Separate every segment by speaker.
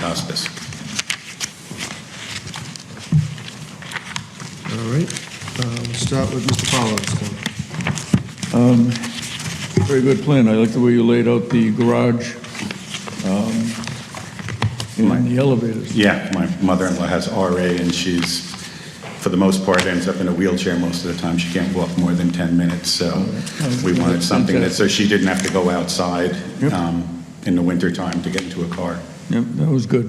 Speaker 1: hospice.
Speaker 2: All right, uh, we'll start with Mr. Fowler this time.
Speaker 3: Very good plan. I like the way you laid out the garage um, and the elevators.
Speaker 1: Yeah, my mother-in-law has RA, and she's, for the most part, ends up in a wheelchair most of the time. She can't walk more than 10 minutes, so we wanted something that, so she didn't have to go outside
Speaker 3: Yep.
Speaker 1: um, in the wintertime to get into a car.
Speaker 3: Yep, that was good.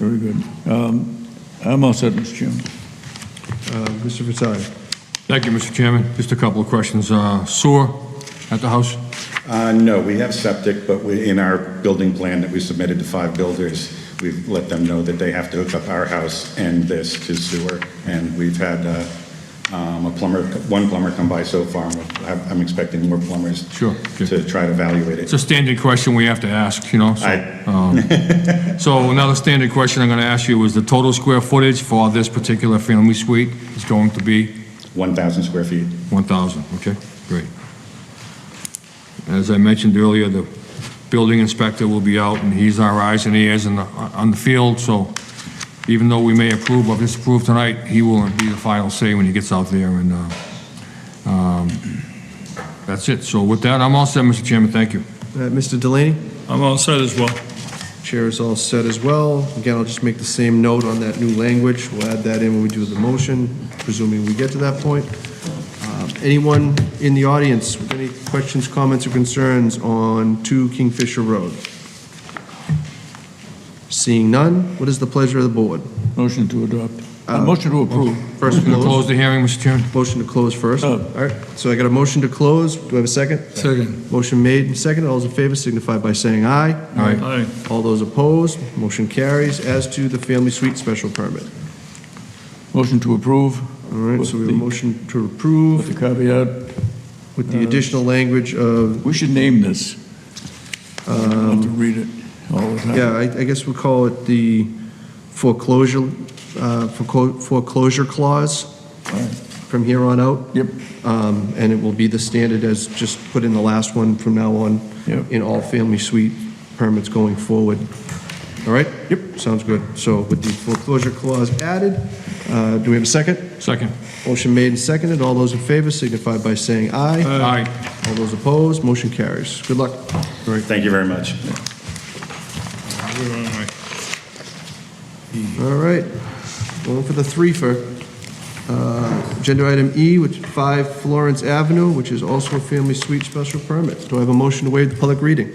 Speaker 3: Very good. Um, I'm all set, Mr. Chairman.
Speaker 2: Uh, Mr. Vitale.
Speaker 4: Thank you, Mr. Chairman. Just a couple of questions. Uh, Sewer at the house?
Speaker 1: Uh, No, we have septic, but we, in our building plan that we submitted to five builders, we've let them know that they have to hook up our house and this to sewer, and we've had uh, um, a plumber, one plumber come by so far, and I'm I'm expecting more plumbers
Speaker 4: Sure, good.
Speaker 1: to try to evaluate it.
Speaker 4: It's a standard question we have to ask, you know? so,
Speaker 1: I-
Speaker 4: um, So another standard question I'm going to ask you is the total square footage for this particular family suite is going to be
Speaker 1: 1,000 square feet.
Speaker 4: 1,000, okay? Great. As I mentioned earlier, the building inspector will be out, and he's our eyes and ears in the- on the field, so even though we may approve or disapprove tonight, he will be the final say when he gets out there, and uh, um, that's it. So with that, I'm all set, Mr. Chairman, thank you.
Speaker 2: Uh, Mr. Delaney?
Speaker 5: I'm all set as well.
Speaker 2: Chair is all set as well. Again, I'll just make the same note on that new language. We'll add that in when we do the motion, presuming we get to that point. Uh, Anyone in the audience with any questions, comments, or concerns on 2 Kingfisher Road? Seeing none, what is the pleasure of the board?
Speaker 3: Motion to adopt. Uh, Motion to approve.
Speaker 2: First
Speaker 4: Can I close
Speaker 2: close,
Speaker 4: the hearing, Mr. Chairman?
Speaker 2: motion to close first. All
Speaker 3: Oh.
Speaker 2: right, so I got a motion to close. Do I have a second?
Speaker 5: Second.
Speaker 2: Motion made and seconded. All those in favor signify by saying aye.
Speaker 4: All right.
Speaker 5: Aye.
Speaker 2: All those opposed, motion carries as to the family suite special permit.
Speaker 3: Motion to approve
Speaker 2: All right, so we have a
Speaker 3: With the-
Speaker 2: motion to
Speaker 3: with
Speaker 2: approve
Speaker 3: the caveat,
Speaker 2: with the additional language of,
Speaker 3: we should name this. I don't have to read it all the time.
Speaker 2: yeah, I I guess we'll call it the foreclosure, uh, foreclo- foreclosure clause
Speaker 3: All right.
Speaker 2: from here on out.
Speaker 3: Yep.
Speaker 2: Um, And it will be the standard as just put in the last one from now on
Speaker 3: Yep.
Speaker 2: in all family suite permits going forward. All right? Yep. Sounds good. So with the foreclosure clause added, uh, do we have a second?
Speaker 4: Second.
Speaker 2: Motion made and seconded. All those in favor signify by saying aye.
Speaker 4: All right.
Speaker 2: All those opposed, motion carries. Good luck.
Speaker 1: Thank you very much.
Speaker 5: We're on my-
Speaker 2: All right, going for the threefer. Uh, Agenda item E, which 5 Florence Avenue, which is also a family suite special permit. Do I have a motion to waive the public reading?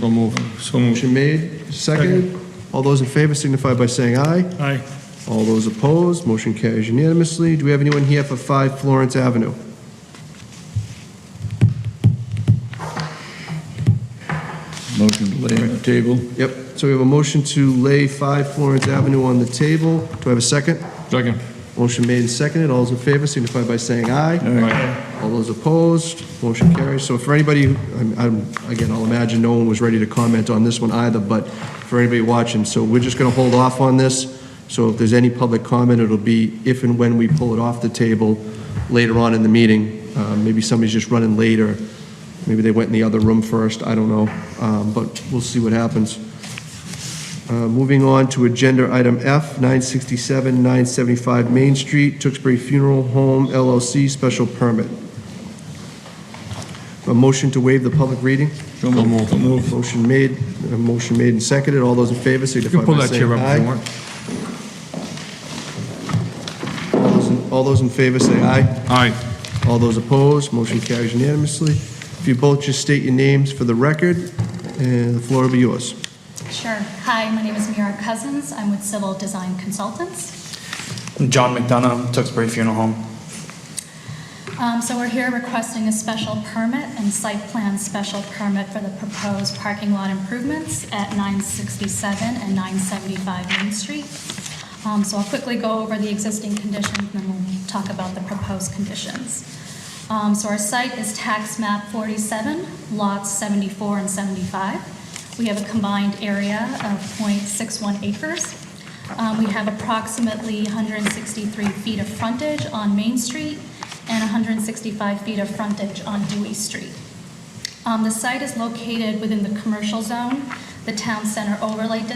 Speaker 4: So move.
Speaker 5: So moved.
Speaker 2: Motion made, seconded. All those in favor signify by saying aye.
Speaker 5: Aye.
Speaker 2: All those opposed, motion carries unanimously. Do we have anyone here for 5 Florence Avenue?
Speaker 3: Motion to lay on the table.
Speaker 2: Yep, so we have a motion to lay 5 Florence Avenue on the table. Do I have a second?
Speaker 4: Second.
Speaker 2: Motion made and seconded. All those in favor signify by saying aye. All those opposed, motion carries. So for anybody, who- I'm- I'm- again, I'll imagine no one was ready to comment on this one either, but for anybody watching, so we're just going to hold off on this. So if there's any public comment, it'll be if and when we pull it off the table later on in the meeting. Uh, Maybe somebody's just running late, or maybe they went in the other room first, I don't know. Um, But we'll see what happens. Uh, Moving on to agenda item F, 967, 975 Main Street, Tewksbury Funeral Home LLC special permit. A motion to waive the public reading?
Speaker 3: So moved.
Speaker 2: Motion made, a motion made and seconded. All those in favor
Speaker 4: You can
Speaker 2: signify
Speaker 4: pull
Speaker 2: by
Speaker 4: that
Speaker 2: saying
Speaker 4: chair up if you
Speaker 2: aye.
Speaker 4: want.
Speaker 2: All those in- All those in favor say aye.
Speaker 4: All right.
Speaker 2: All those opposed, motion carries unanimously. If you both just state your names for the record, and the floor will be yours.
Speaker 6: Sure. Hi, my name is Mira Cousins. I'm with Civil Design Consultants.
Speaker 7: I'm John McDonough, Tewksbury Funeral Home.
Speaker 6: Um, So we're here requesting a special permit and site plan special permit for the proposed parking lot improvements at 967 and 975 Main Street. Um, So I'll quickly go over the existing conditions, and then we'll talk about the proposed conditions. Um, So our site is tax map 47, lots 74 and 75. We have a combined area of .61 acres. Um, We have approximately 163 feet of frontage on Main Street and 165 feet of frontage on Dewey Street. Um, The site is located within the commercial zone, the town center overlay